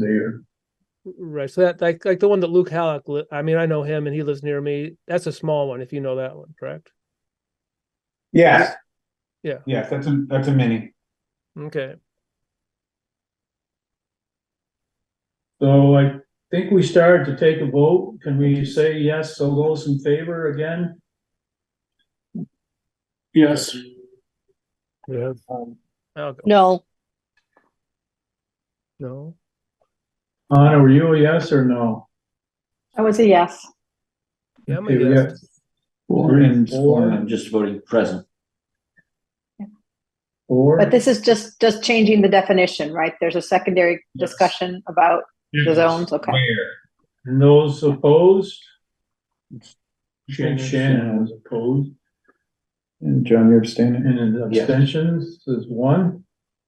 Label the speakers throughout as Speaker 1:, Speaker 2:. Speaker 1: there.
Speaker 2: Right. So that like like the one that Luke Halleck. Li- I mean, I know him, and he lives near me. That's a small one, if you know that one, correct?
Speaker 3: Yes.
Speaker 2: Yeah.
Speaker 3: Yes, that's a, that's a mini.
Speaker 2: Okay.
Speaker 1: So I think we started to take a vote. Can we say yes, so those in favor again? Yes.
Speaker 2: Yeah.
Speaker 1: Um,
Speaker 2: I'll go.
Speaker 4: No,
Speaker 2: No.
Speaker 1: Anna, were you a yes or no?
Speaker 5: I would say yes.
Speaker 2: Yeah, I'm a
Speaker 1: Okay, we
Speaker 2: yes.
Speaker 1: Four and
Speaker 6: Four,
Speaker 1: four,
Speaker 6: I'm just voting present.
Speaker 1: four.
Speaker 5: But this is just, just changing the definition, right? There's a secondary
Speaker 1: Yes.
Speaker 5: discussion about the zones, okay.
Speaker 1: Where? And those opposed?
Speaker 3: Shannon.
Speaker 1: Shannon was opposed,
Speaker 3: And John, you're abstaining?
Speaker 1: and then
Speaker 6: Yes.
Speaker 1: abstentions is one,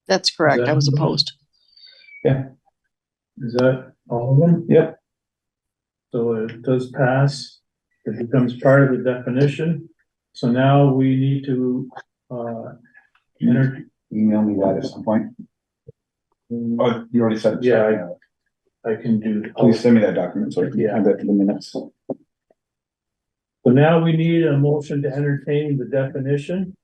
Speaker 4: that's correct. I was
Speaker 1: Exactly.
Speaker 4: opposed.
Speaker 1: is that all of them?
Speaker 3: Yep.
Speaker 1: So it does pass, it becomes part of the definition, so now we need to, uh, enter,
Speaker 3: Email me that at some point. Oh, you already said. it, so,
Speaker 1: Yeah, I can do. the-
Speaker 3: Please send me that document so I can
Speaker 1: Yeah.
Speaker 3: add that to the minutes.
Speaker 1: So now we need a motion to entertain the definition,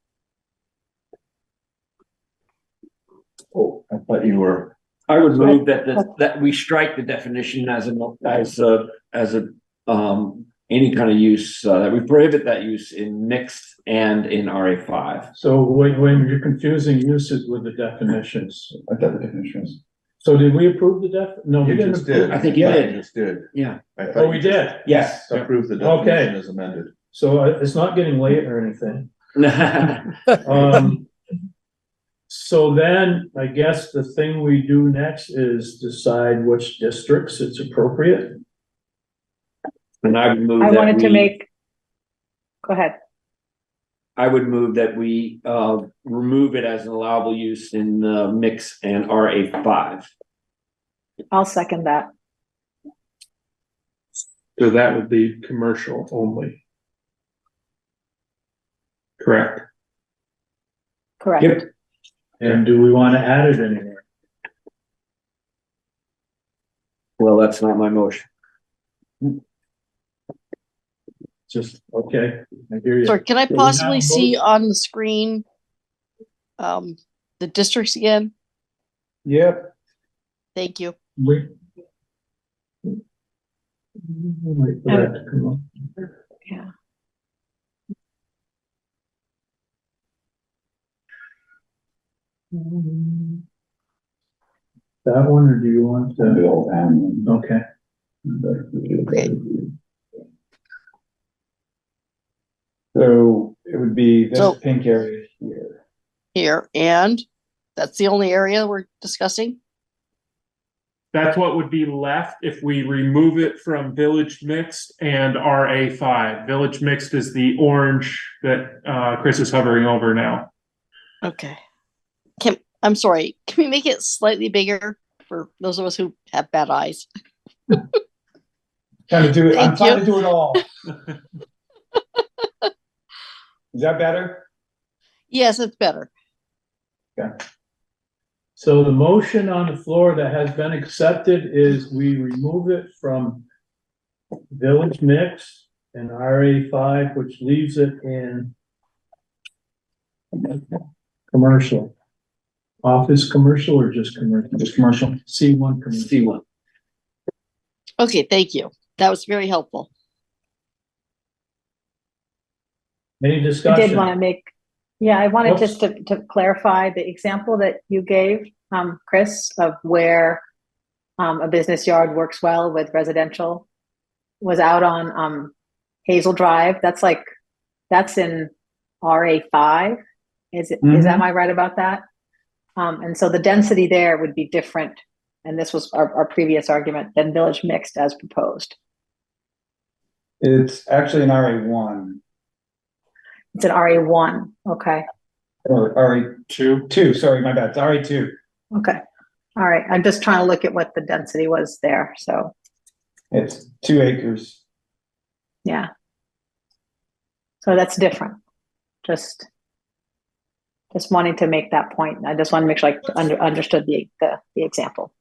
Speaker 6: Oh, I thought you were.
Speaker 7: I would move,
Speaker 6: Move that, that, that we strike the definition as an, as a, as a, um, any kind of use, uh, that we prohibit that use in mixed and in RA five.
Speaker 1: so wait, wait, you're confusing uses with the definitions.
Speaker 3: I thought the definition was.
Speaker 1: So did we approve the def, no, we didn't approve.
Speaker 6: I think you
Speaker 3: Yeah,
Speaker 6: did.
Speaker 3: you Just did.
Speaker 6: Yeah.
Speaker 3: I thought
Speaker 1: Oh, we
Speaker 3: you just
Speaker 1: did,
Speaker 6: Yes.
Speaker 3: Approved the
Speaker 1: Okay.
Speaker 3: definition as amended.
Speaker 1: so uh, it's not getting late or anything.
Speaker 6: Yes.
Speaker 1: Um, so then I guess the thing we do next is decide which districts it's appropriate.
Speaker 6: And I would move
Speaker 5: I
Speaker 6: that
Speaker 5: wanted to
Speaker 6: we-
Speaker 5: make, go ahead.
Speaker 6: I would move that we, uh, remove it as an allowable use in, uh, mix and RA five.
Speaker 5: I'll second that.
Speaker 7: so that would be commercial only. Correct.
Speaker 5: Correct.
Speaker 1: And do we want to add it anywhere?
Speaker 6: Well, that's not my motion.
Speaker 1: Just, okay, I hear you.
Speaker 4: Sorry, can I
Speaker 1: we
Speaker 4: possibly
Speaker 1: have
Speaker 4: see
Speaker 1: both?
Speaker 4: on the screen? Um, the districts again?
Speaker 3: Yep.
Speaker 4: Thank you.
Speaker 1: We- Wait for that to come up.
Speaker 5: Yeah.
Speaker 1: That one, or do you want
Speaker 3: The
Speaker 1: to,
Speaker 3: old and-
Speaker 1: okay,
Speaker 3: So it would be this
Speaker 4: So-
Speaker 3: pink area here.
Speaker 4: Here, and that's the only area we're discussing?
Speaker 8: That's what would be left if we remove it from village mixed and RA five. Village mixed is the orange that uh, Chris is hovering over now.
Speaker 4: Okay. Can, I'm sorry, can we make it slightly bigger for those of us who have bad eyes?
Speaker 3: Trying to do it, I'm
Speaker 4: Thank
Speaker 3: trying
Speaker 4: you.
Speaker 3: to do it all. Is that better?
Speaker 4: Yes, it's better.
Speaker 1: so the motion on the floor that has been accepted is we remove it from village mix and RA five, which leaves it in commercial. Office commercial or just commercial?
Speaker 3: Just commercial.
Speaker 1: C one commercial.
Speaker 6: C one.
Speaker 4: Okay, thank you. That was very helpful.
Speaker 1: Any
Speaker 5: I
Speaker 1: discussion?
Speaker 5: did want to make, yeah, I wanted
Speaker 1: Oops.
Speaker 5: just to, to clarify the example that you gave, um, Chris, of where um, a business yard works well with residential was out on, um, Hazel Drive. That's like, that's in RA five. Is it, is, am I right about that? Um, and so the density there would be different. And this was our, our previous argument than village mixed as proposed.
Speaker 3: It's actually an RA one
Speaker 5: It's an RA one. Okay.
Speaker 3: or RA
Speaker 8: Two.
Speaker 3: two, sorry, my bad, it's RA two.
Speaker 5: Okay. All right. I'm just trying to look at what the density was there. So,
Speaker 3: It's two acres.
Speaker 5: yeah. So that's different. Just, just wanting to make that point. I just want to make sure I under, understood the, the, the example.